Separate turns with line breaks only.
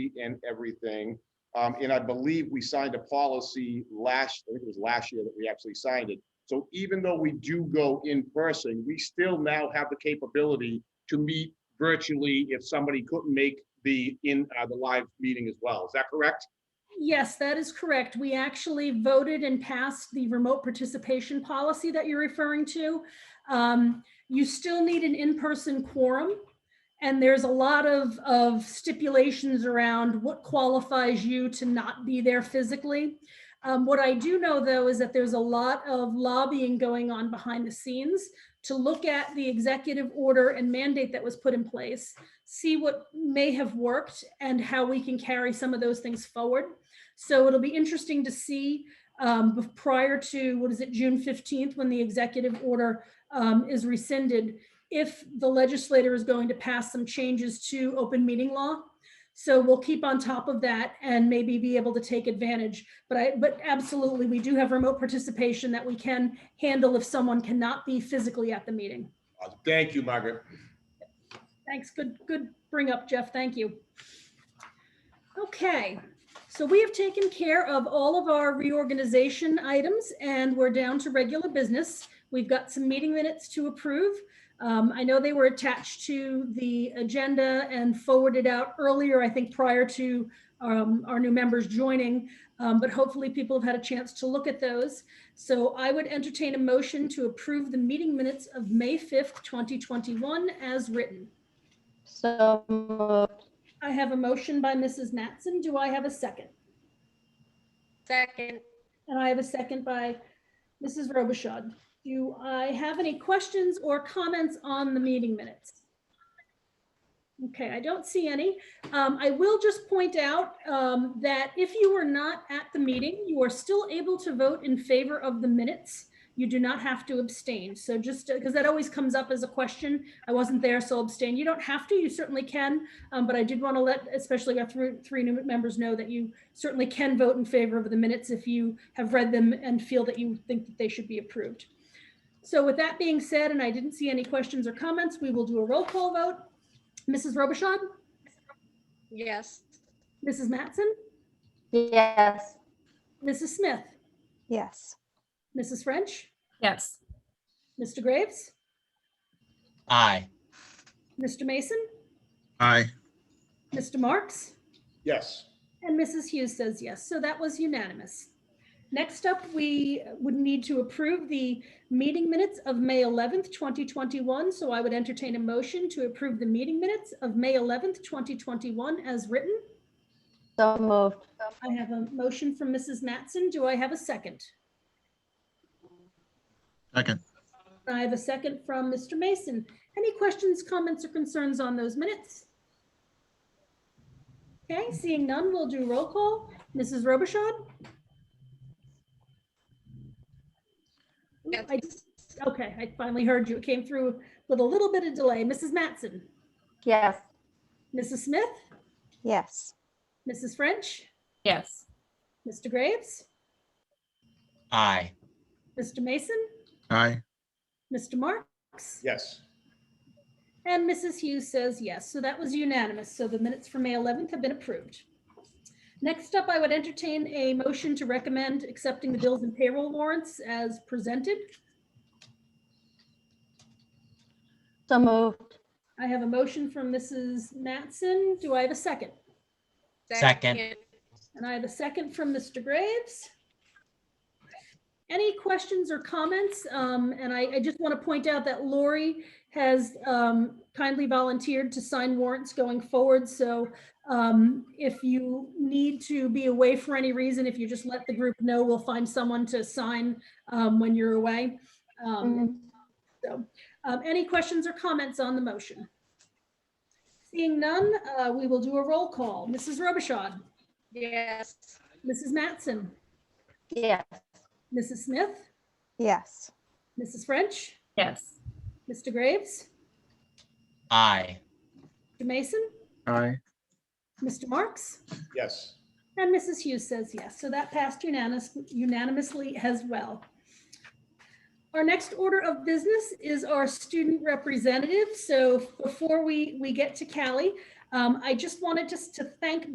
sheet and everything. Um, and I believe we signed a policy last, I think it was last year that we actually signed it. So even though we do go in person, we still now have the capability to meet virtually if somebody couldn't make the, in, uh, the live meeting as well. Is that correct?
Yes, that is correct. We actually voted and passed the remote participation policy that you're referring to. Um, You still need an in-person quorum. And there's a lot of, of stipulations around what qualifies you to not be there physically. Um, What I do know, though, is that there's a lot of lobbying going on behind the scenes to look at the executive order and mandate that was put in place, see what may have worked and how we can carry some of those things forward. So it'll be interesting to see um, bef- prior to, what is it, June fifteenth, when the executive order um, is rescinded, if the legislator is going to pass some changes to open meeting law. So we'll keep on top of that and maybe be able to take advantage. But I, but absolutely, we do have remote participation that we can handle if someone cannot be physically at the meeting.
Uh, Thank you, Margaret.
Thanks, good, good bring up, Jeff, thank you. Okay, so we have taken care of all of our reorganization items and we're down to regular business. We've got some meeting minutes to approve. Um, I know they were attached to the agenda and forwarded out earlier, I think prior to um, our new members joining, um, but hopefully people have had a chance to look at those. So I would entertain a motion to approve the meeting minutes of May 5th, 2021 as written.
So moved.
I have a motion by Mrs. Matson. Do I have a second?
Second.
And I have a second by Mrs. Robichaud. Do I have any questions or comments on the meeting minutes? Okay, I don't see any. Um, I will just point out um, that if you were not at the meeting, you are still able to vote in favor of the minutes. You do not have to abstain. So just, because that always comes up as a question, I wasn't there, so abstain. You don't have to, you certainly can. Um, But I did want to let, especially our three, three new members know that you certainly can vote in favor of the minutes if you have read them and feel that you think that they should be approved. So with that being said, and I didn't see any questions or comments, we will do a roll call vote. Mrs. Robichaud,
Yes.
Mrs. Matson,
Yes.
Mrs. Smith,
Yes.
Mrs. French,
Yes.
Mr. Graves,
Aye.
Mr. Mason,
Aye.
Mr. Marks,
Yes.
and Mrs. Hughes says yes. So that was unanimous. Next up, we would need to approve the meeting minutes of May 11th, 2021. So I would entertain a motion to approve the meeting minutes of May 11th, 2021 as written.
So moved.
I have a motion from Mrs. Matson. Do I have a second?
Second.
I have a second from Mr. Mason. Any questions, comments, or concerns on those minutes? Okay, seeing none, we'll do roll call. Mrs. Robichaud? Ooh, I- Okay, I finally heard you. It came through with a little bit of delay. Mrs. Matson,
Yes.
Mrs. Smith,
Yes.
Mrs. French,
Yes.
Mr. Graves,
Aye.
Mr. Mason,
Aye.
Mr. Marks?
Yes.
And Mrs. Hughes says yes. So that was unanimous. So the minutes for May 11th have been approved. Next up, I would entertain a motion to recommend accepting the bills and payroll warrants as presented.
So moved.
I have a motion from Mrs. Matson. Do I have a second?
Second.
And I have a second from Mr. Graves. Any questions or comments? Um, and I, I just want to point out that Lori has, um, kindly volunteered to sign warrants going forward. So, um, if you need to be away for any reason, if you just let the group know, we'll find someone to sign, um, when you're away. Um,
Mhm.
um, Any questions or comments on the motion? Seeing none, uh, we will do a roll call. Mrs. Robichaud,
Yes.
Mrs. Matson,
Yes.
Mrs. Smith,
Yes.
Mrs. French,
Yes.
Mr. Graves,
Aye.
Mr. Mason,
Aye.
Mr. Marks,
Yes.
and Mrs. Hughes says yes. So that passed unanimous- unanimously as well. Our next order of business is our student representative. So before we, we get to Callie, um, I just wanted just to thank